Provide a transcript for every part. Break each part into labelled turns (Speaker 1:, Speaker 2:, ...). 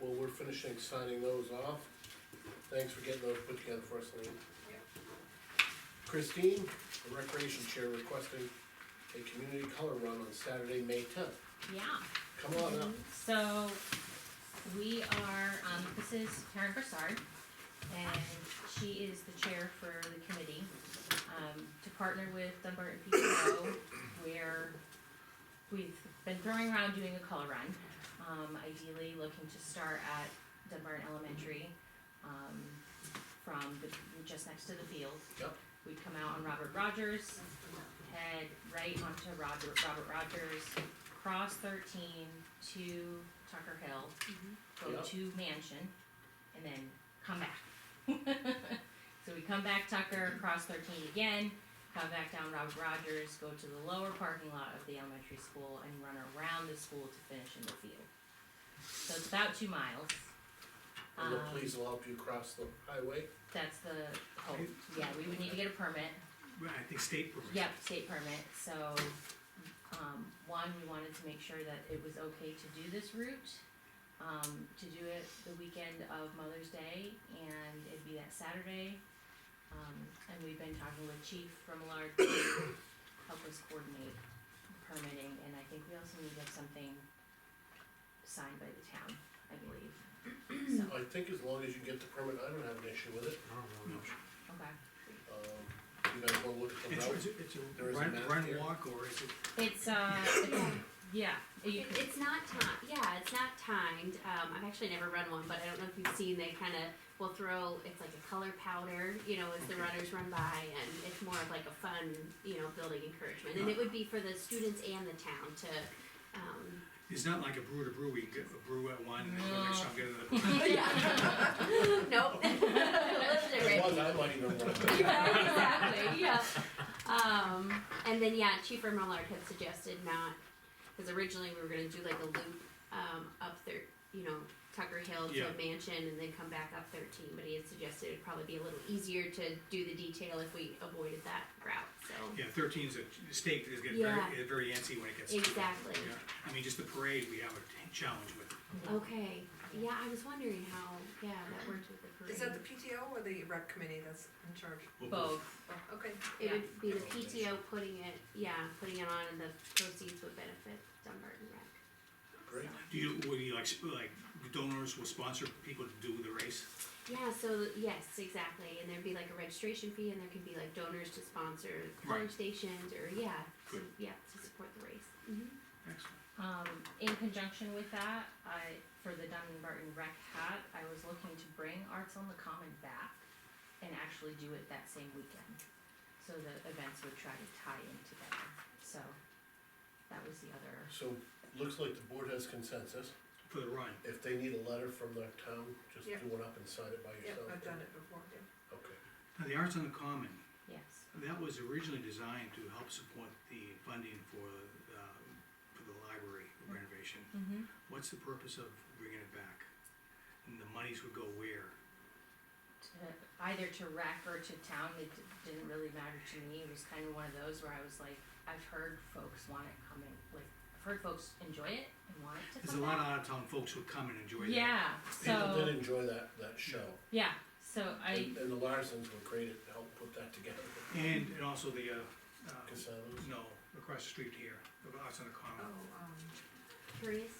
Speaker 1: Well, we're finishing signing those off. Thanks for getting those put together for us, Lean.
Speaker 2: Yep.
Speaker 1: Christine, the recreation chair requesting a community color run on Saturday, May tenth.
Speaker 3: Yeah.
Speaker 1: Come on up.
Speaker 3: So we are, um, this is Karen Broussard, and she is the chair for the committee, um, to partner with Dunbarton PTO, where we've been throwing around doing a color run. Um, ideally looking to start at Dunbarton Elementary, um, from the, just next to the field.
Speaker 1: Yep.
Speaker 3: We'd come out on Robert Rogers, head right onto Robert, Robert Rogers, cross thirteen to Tucker Hill, go
Speaker 1: Yep.
Speaker 3: to Mansion, and then come back. so we come back Tucker, cross thirteen again, come back down Robert Rogers, go to the lower parking lot of the elementary school, and run around the school to finish in the field. So it's about two miles.
Speaker 4: Mm-hmm.
Speaker 1: And the
Speaker 4: Uh-huh.
Speaker 3: Um,
Speaker 1: police will help you cross the highway.
Speaker 3: That's the hope. Yeah, we would need to get a permit.
Speaker 5: Right, I think state permit.
Speaker 3: Yep, state permit, so, um, one, we wanted to make sure that it was okay to do this route. Um, to do it the weekend of Mother's Day, and it'd be that Saturday. Um, and we've been talking with Chief from Lark to help us coordinate permitting, and I think we also need to have something signed by the town, I believe. So,
Speaker 1: I think as long as you get the permit, I don't have an issue with it.
Speaker 5: No, no, no.
Speaker 3: okay.
Speaker 1: Um, you guys wanna look at the
Speaker 5: It's,
Speaker 1: route?
Speaker 5: it's, a- it's a
Speaker 1: There is a
Speaker 5: run,
Speaker 1: map
Speaker 5: run
Speaker 1: here.
Speaker 5: walk or is it?
Speaker 3: It's, uh, it's- yeah, you
Speaker 2: It,
Speaker 3: could,
Speaker 2: it's not timed. Yeah, it's not timed. Um, I've actually never run one, but I don't know if you've seen. They kind of will throw. It's like a color powder, you know, as the runners run by, and it's more of like a fun, you know, building encouragement. And it would be for the students and the town to. Um,
Speaker 5: It's not like a brew to brew, we get a brew at one and then the
Speaker 3: No.
Speaker 5: next time get another.
Speaker 2: nope.
Speaker 1: There's
Speaker 2: Literally.
Speaker 1: one I might even want.
Speaker 2: Yeah, exactly. Yeah. Um, and then yeah, Chief Merlard had suggested not because originally we were gonna do like a loop um, up there, you know, Tucker Hill to
Speaker 5: Yeah.
Speaker 2: Mansion, and then come back up 13. But he had suggested it'd probably be a little easier to do the detail if we avoided that route. So
Speaker 5: Yeah, thirteen's a state, is getting
Speaker 2: Yeah.
Speaker 5: very, very antsy when it gets. to that.
Speaker 2: Exactly.
Speaker 5: Yeah. I mean, just the parade, we have a challenge with.
Speaker 4: Mm-hmm.
Speaker 2: okay, yeah, I was wondering how yeah that worked with the parade.
Speaker 4: Is that the PTO or the rec committee that's in charge? Oh,
Speaker 3: both,
Speaker 4: Okay.
Speaker 2: it would be the PTO putting it yeah putting it on, and the proceeds would benefit Dumbarton Rec.
Speaker 1: Great.
Speaker 5: Do you, would you like, sp- like donors will sponsor people to do the race?
Speaker 2: Yeah, so yes, exactly. And there'd be like a registration fee and there could be like donors to sponsor
Speaker 5: Right.
Speaker 2: polling stations or yeah, to,
Speaker 5: Good.
Speaker 2: yeah, to support the race. hmm
Speaker 5: Excellent.
Speaker 3: Um, in conjunction with that, I, for the Dunbarton Rec hat, I was looking to bring Arts on the Common back and actually do it that same weekend. So the events would try to tie in together, so that was the other,
Speaker 1: So, looks like the board has consensus.
Speaker 5: For the run,
Speaker 1: If they need a letter from their town, just
Speaker 4: Yep.
Speaker 1: do one up and sign it by
Speaker 4: Yep,
Speaker 1: yourself.
Speaker 4: I've done it before, yeah.
Speaker 1: Okay.
Speaker 5: now the Arts on the Common,
Speaker 3: yes,
Speaker 5: that was originally designed to help support the funding for, uh, for the library renovation.
Speaker 3: Mhm.
Speaker 5: What's the purpose of bringing it back? And the monies would go where?
Speaker 3: to, either to rec or to town, it d- didn't really matter to me, it was kind of one of those where I was like, I've heard folks want it coming, like, I've heard folks enjoy it and want it to
Speaker 5: There's a
Speaker 3: come
Speaker 5: lot of
Speaker 3: back.
Speaker 5: out-of-town folks who come and enjoy that.
Speaker 3: Yeah,
Speaker 1: People did
Speaker 3: so,
Speaker 1: enjoy that, that show.
Speaker 3: yeah, so I,
Speaker 1: And and the Larsens were great at help put that together.
Speaker 5: And, and also the, uh, uh,
Speaker 1: Casanos.
Speaker 5: no, across the street here, the Arts on the
Speaker 4: Oh,
Speaker 5: Common.
Speaker 4: um,
Speaker 2: Curious?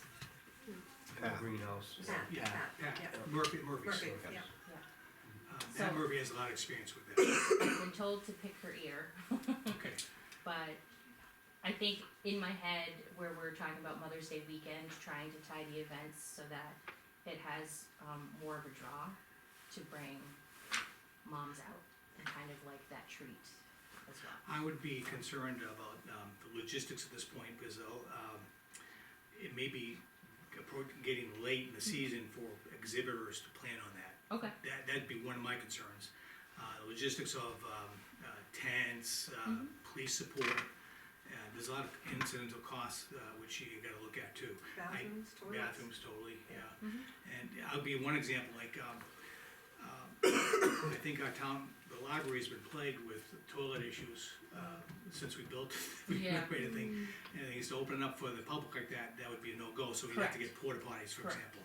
Speaker 6: greenhouse.
Speaker 4: Pat,
Speaker 5: Yeah,
Speaker 4: Pat,
Speaker 5: Pat
Speaker 4: yeah.
Speaker 5: Murphy, Murphy's.
Speaker 4: Murphy, yeah.
Speaker 5: Uh, Pat
Speaker 3: So-
Speaker 5: Murphy has a lot of experience with that.
Speaker 3: I've been told to pick her ear.
Speaker 5: Okay,
Speaker 3: but I think in my head where we're talking about Mother's Day weekend, trying to tie the events so that it has um, more of a draw to bring moms out and kind of like that treat as well.
Speaker 5: I would be concerned about, um, the logistics at this point, because, uh, um, it may be appro- getting late in the season for exhibitors to plan on that.
Speaker 3: Okay.
Speaker 5: That, that'd be one of my concerns. Uh, logistics of, um, uh, tents, uh, police support, uh, there's a lot of incidental costs, uh, which you gotta look at too. I-
Speaker 4: Bathrooms, toilets.
Speaker 5: Bathrooms, totally, yeah.
Speaker 3: Mhm.
Speaker 5: And I'll give you one example, like, um, um, I think our town, the library's been plagued with toilet issues, uh, since we built, we
Speaker 3: Yeah.
Speaker 5: renovated the thing. And they used to open it up for the public like that, that would be a no-go, so we'd have to
Speaker 3: Correct.
Speaker 5: get porta potties, for
Speaker 3: Correct.
Speaker 5: example.